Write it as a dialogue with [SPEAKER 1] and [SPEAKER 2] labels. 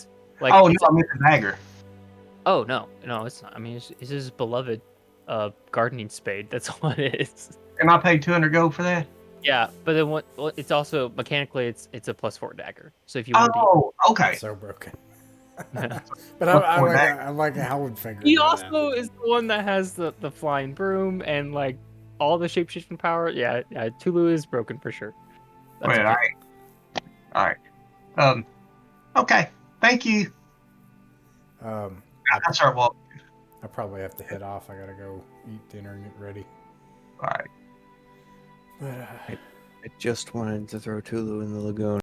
[SPEAKER 1] Like,
[SPEAKER 2] oh no,
[SPEAKER 1] it's-
[SPEAKER 2] I meant the dagger.
[SPEAKER 1] oh no, no, it's not. I mean, it's, it's his beloved uh, gardening spade. That's what it is.
[SPEAKER 2] And I paid two hundred gold for that.
[SPEAKER 1] Yeah, but then what? Well, it's also mechanically, it's it's a plus four dagger. So if you want to,
[SPEAKER 2] Oh, okay.
[SPEAKER 3] So broken.
[SPEAKER 1] Yeah.
[SPEAKER 3] but I, I,
[SPEAKER 2] We're
[SPEAKER 3] like,
[SPEAKER 2] back.
[SPEAKER 3] I like how would figure.
[SPEAKER 1] he also is the one that has the the flying broom and like all the shapeshifting power. Yeah, yeah, Tulu is broken for sure. That's
[SPEAKER 2] Wait, all
[SPEAKER 1] okay.
[SPEAKER 2] right, all right. Um, okay. Thank you.
[SPEAKER 3] Um,
[SPEAKER 2] That's our walk.
[SPEAKER 3] I probably have to head off. I gotta go eat dinner and get ready.
[SPEAKER 2] All right.
[SPEAKER 3] But uh,
[SPEAKER 4] I just wanted to throw Tulu in the lagoon.